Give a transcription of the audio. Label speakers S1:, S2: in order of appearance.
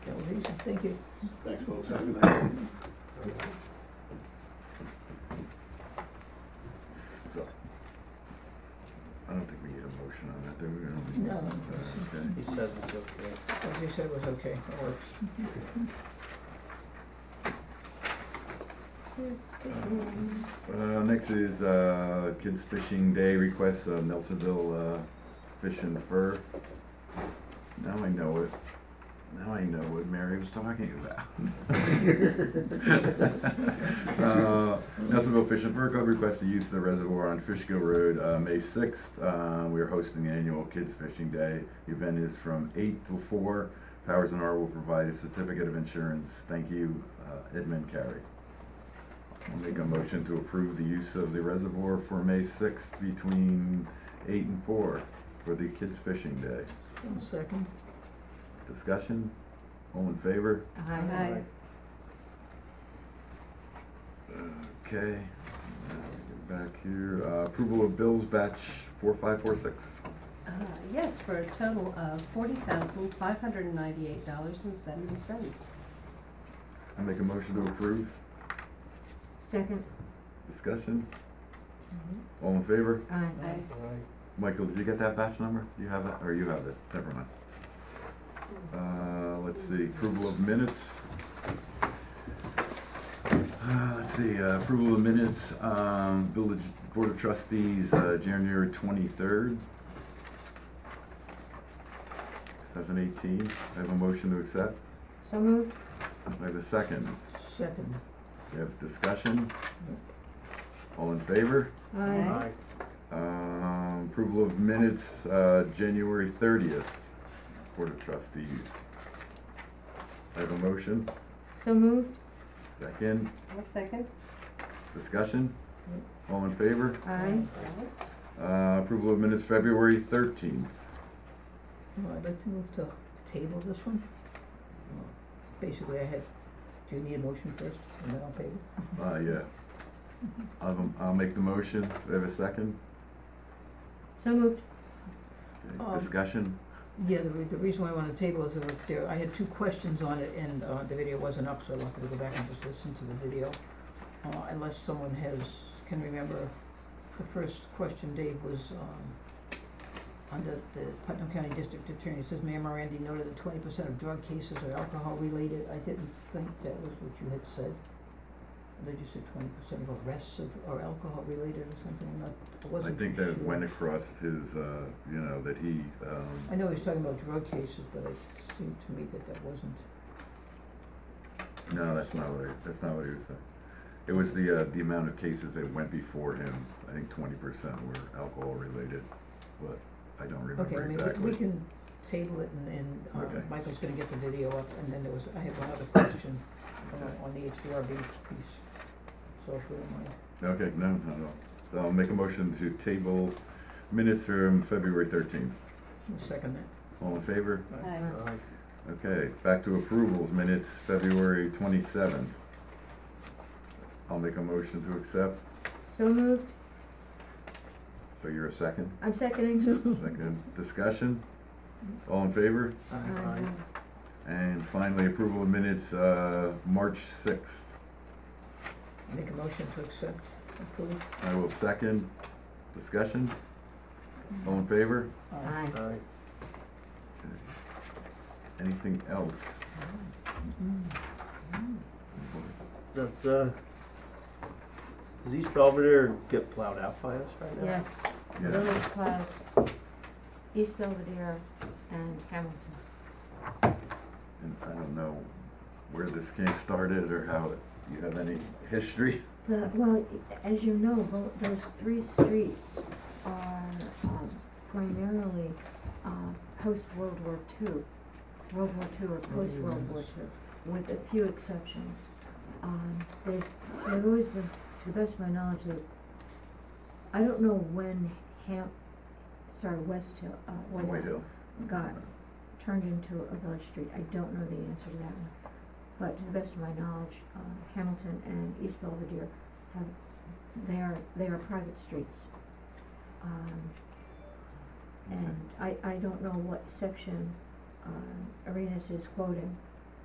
S1: Thank you.
S2: Thanks, folks. Have a good night.
S3: So, I don't think we need a motion on that, do we? I don't think
S1: No.
S3: so. Okay.
S4: He says it's okay.
S1: What you said was okay, it works.
S3: Uh, next is, uh, Kids Fishing Day request, uh, Nelsonville, uh, Fish and Fur. Now I know it, now I know what Mary was talking about. Uh, Nelsonville Fish and Fur Club requests the use of the reservoir on Fishkill Road, uh, May sixth. Uh, we are hosting the annual Kids Fishing Day. The event is from eight till four. Powers and R will provide a certificate of insurance. Thank you, uh, Edmund Carey. I'll make a motion to approve the use of the reservoir for May sixth between eight and four for the kids fishing day.
S1: One second.
S3: Discussion? All in favor?
S5: Aye.
S3: Okay, now we get back here. Uh, approval of bills batch four five four six.
S5: Uh, Yes, for a total of forty thousand, five hundred and ninety-eight dollars and seventy cents.
S3: I make a motion to approve.
S5: Second.
S3: Discussion? All in favor?
S5: Aye.
S3: Michael, did you get that batch number? Do you have it, or you have it? Never mind. Uh, let's see, approval of minutes. Uh, let's see, uh, approval of minutes, um, Village Board of Trustees, uh, January twenty-third. Seven eighteen, I have a motion to accept.
S5: So moved.
S3: I have a second.
S1: Second.
S3: We have discussion. All in favor?
S4: Aye.
S3: Um, approval of minutes, uh, January thirtieth, Board of Trustees. I have a motion,
S5: So moved.
S3: second,
S5: I'll second.
S3: discussion, all in favor?
S5: Aye.
S3: Uh, approval of minutes, February thirteenth.
S1: Well, I'd like to move to table this one. Basically, I had, do you need a motion first, and then I'll table?
S3: Uh, yeah. I'll, I'll make the motion, do I have a second?
S5: So moved.
S3: Okay,
S1: Um,
S3: Discussion,
S1: Yeah, the, re- the reason why I wanted to table is that there, I had two questions on it, and, uh, the video wasn't up, so I wanted to go back and just listen to the video. Uh, unless someone has, can remember, the first question, Dave, was, um, under the Putnam County District Attorney, it says, Mayor Morandi noted that twenty percent of drug cases are alcohol-related, I didn't think that was what you had said. Did you say twenty percent of arrests of, are alcohol-related or something, I'm not, I
S3: I
S1: wasn't
S3: think
S1: too
S3: that
S1: sure.
S3: went across his, uh, you know, that he, um,
S1: I know he's talking about drug cases, but it seemed to me that that wasn't.
S3: No, that's not what, I- that's not what he was saying. It was the, uh, the amount of cases that went before him, I think twenty percent were alcohol related, but I don't
S1: Okay, I
S3: remember
S1: mean, we, we
S3: exactly.
S1: can table it and, and,
S3: Okay.
S1: um, Michael's gonna get the video up, and then there was, I had one other question uh, on the HDRB piece, so if you don't mind.
S3: Okay, no, no, no. So I'll make a motion to table minutes from February thirteenth.
S1: I'll second that.
S3: All in favor?
S5: Aye.
S4: Aye.
S3: Okay, back to approvals, minutes February twenty-seventh. I'll make a motion to accept.
S5: So moved.
S3: So you're a second?
S5: I'm seconding.
S1: Hmm.
S3: Second. Discussion? All in favor?
S4: Aye.
S3: And finally, approval of minutes, uh, March sixth.
S1: Make a motion to accept, approve.
S3: I will second. Discussion? All in favor?
S1: Uh,
S4: Aye.
S3: Anything else?
S1: mm,
S4: That's, uh, does East Belvedere get plowed out by us right now?
S6: Yes,
S3: Yeah,
S6: Village Plaza, East Belvedere, and Hamilton.
S3: and I don't know where this game started or how it, you have any history?
S6: The, well, as you know, tho- those three streets are um, primarily um, post-World War II, World War II or
S3: Oh,
S6: post-World War II, with a few exceptions. Um, They've, they've always been, to the best of my knowledge, they, I don't know when Ham, sorry, West Hill, uh, White
S3: White Hill.
S6: got turned into a village street. I don't know the answer to that one. But to the best of my knowledge, uh, Hamilton and East Belvedere have, they are, they are private streets. Um, and I, I don't know what section, um, uh, Arenas is quoting,